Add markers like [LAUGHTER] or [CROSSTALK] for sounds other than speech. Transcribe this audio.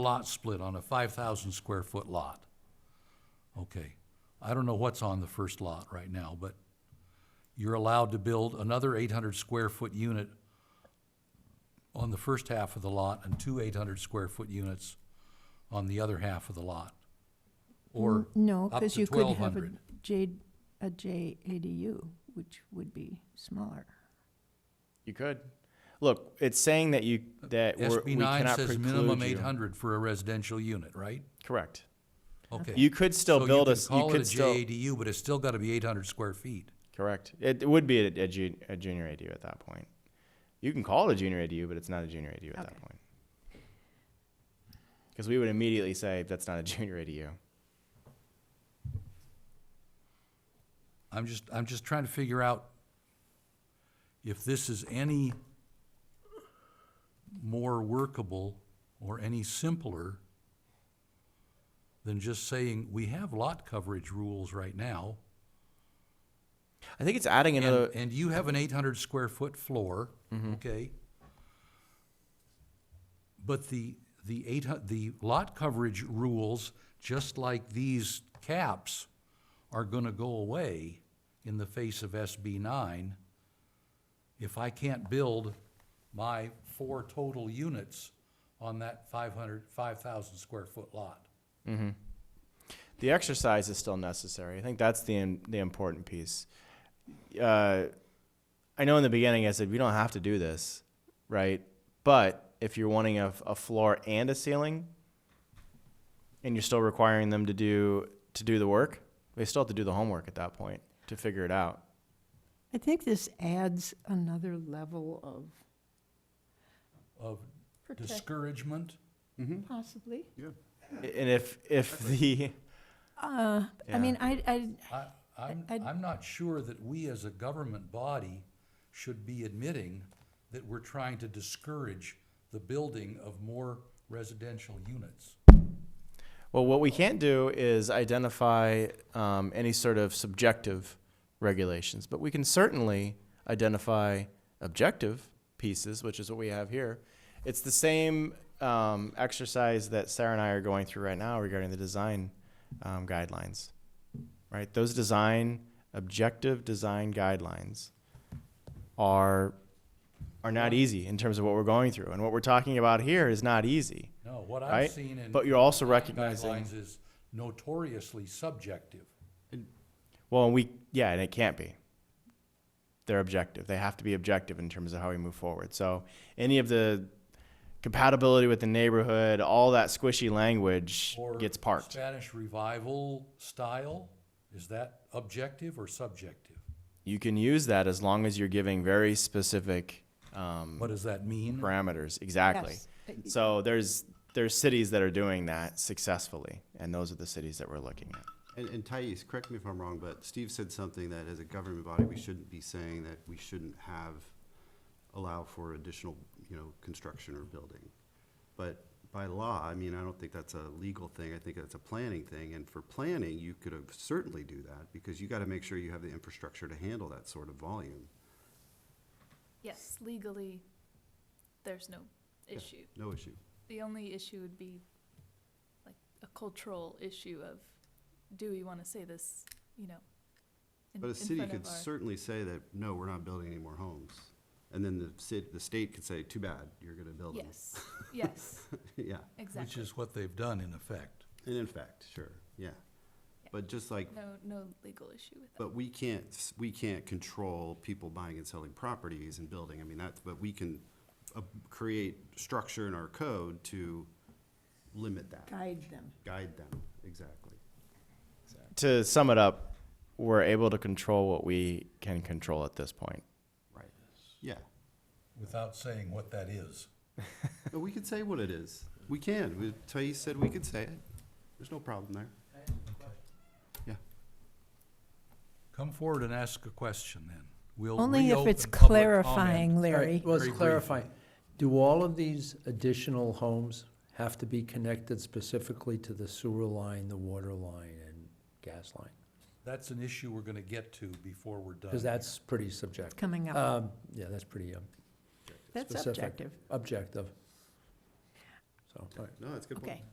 lot split on a five thousand square foot lot. Okay, I don't know what's on the first lot right now, but you're allowed to build another eight hundred square foot unit on the first half of the lot and two eight hundred square foot units on the other half of the lot. Or No, up because to you could have a 1,200. J, a J ADU, which would be smaller. You could. Look, it's saying that you, that we're- we SB nine cannot says minimum preclude eight you. hundred for a residential unit, right? Correct. Okay. You could still So you build a, can s- you call it could a still, JADU, but it's still gotta be eight hundred square feet. correct. It it would be a, a ju- a junior ADU at that point. You can call it a junior ADU, but it's not a junior ADU at that Okay. point. Because we would immediately say, that's not a junior ADU. I'm just, I'm just trying to figure out if this is any more workable or any simpler than just saying, we have lot coverage rules right now, I think it's adding and, another, and you have an eight hundred square foot floor, okay? But the, the eight hu- the lot coverage rules, just like these caps, are gonna go away in the face of SB nine. If I can't build my four total units on that 500 5,000 square foot lot. the exercise is still necessary. I think that's the, im- the important piece. Uh, I know in the beginning I said, we don't have to do this, right? But if you're wanting a, a floor and a ceiling, and you're still requiring them to do to do the work, they still have to do the homework at that point to figure it out. I think this adds another level of Of discouragement, possibly. And if if the Uh, I Yeah. mean, I, I, I, I'm, I'd- I'm not sure that we as a government body should be admitting that we're trying to discourage the building of more residential units. Well, what we can't do is identify um, any sort of subjective regulations, but we can certainly identify objective pieces, which is what we have here. It's the same um, exercise that Sarah and I are going through right now regarding the design um, guidelines, right? Those design objective design guidelines are are not easy in terms of what we're going through, and what we're talking about here is not easy, No, what Right, I've seen in but you're also recognizing. guidelines is notoriously subjective. Well, and we yeah, and it can't be. They're objective. They have to be objective in terms of how we move forward. So any of the compatibility with the neighborhood, all that squishy language or gets parked. Spanish revival style, is that objective or subjective? You can use that as long as you're giving very specific um, What does that mean? parameters. Exactly. Yes. So there's there's cities that are doing that successfully, and those are the cities that we're looking at. And, and Thais, correct me if I'm wrong, but Steve said something that as a government body, we shouldn't be saying that we shouldn't have, allow for additional, you know, construction or building. But by law, I mean, I don't think that's a legal thing, I think that's a planning thing, and for planning, you could have certainly do that, because you gotta make sure you have the infrastructure to handle that sort of volume. Yes, legally, there's no issue. No issue. The only issue would be like a cultural issue of, do we want to say this, you know? in- But a in city front of could our- certainly say that, no, we're not building any more homes. And then the cit, the state could say, too bad, you're gonna build them. Yes, yes, [LAUGHS] Yeah. Which exactly. is what they've done in effect. And in fact, sure, yeah. Yeah. But just like, No, no legal issue with that. but we can't, we can't control people buying and selling properties and building, I mean, that's, but we can uh, create structure in our code to limit that, guide them. guide them, exactly. To sum it up, we're able to control what we can control at this point. Right. Yeah, Without saying what that is. but we could say what it is, we can, We- Thais said we could say it, there's no problem there. Yeah, Come forward and ask a question then. We'll Only if it's reopen public clarifying, comment. All right, Very Larry. Well, let's briefly. clarify. Do all of these additional homes have to be connected specifically to the sewer line, the water line, and gas line? That's an issue we're gonna get to before we're done. Because that's pretty It's subjective. coming up. Um, Yeah, that's pretty um, That's specific. objective. Objective. So, all right. No, that's a good point. Okay.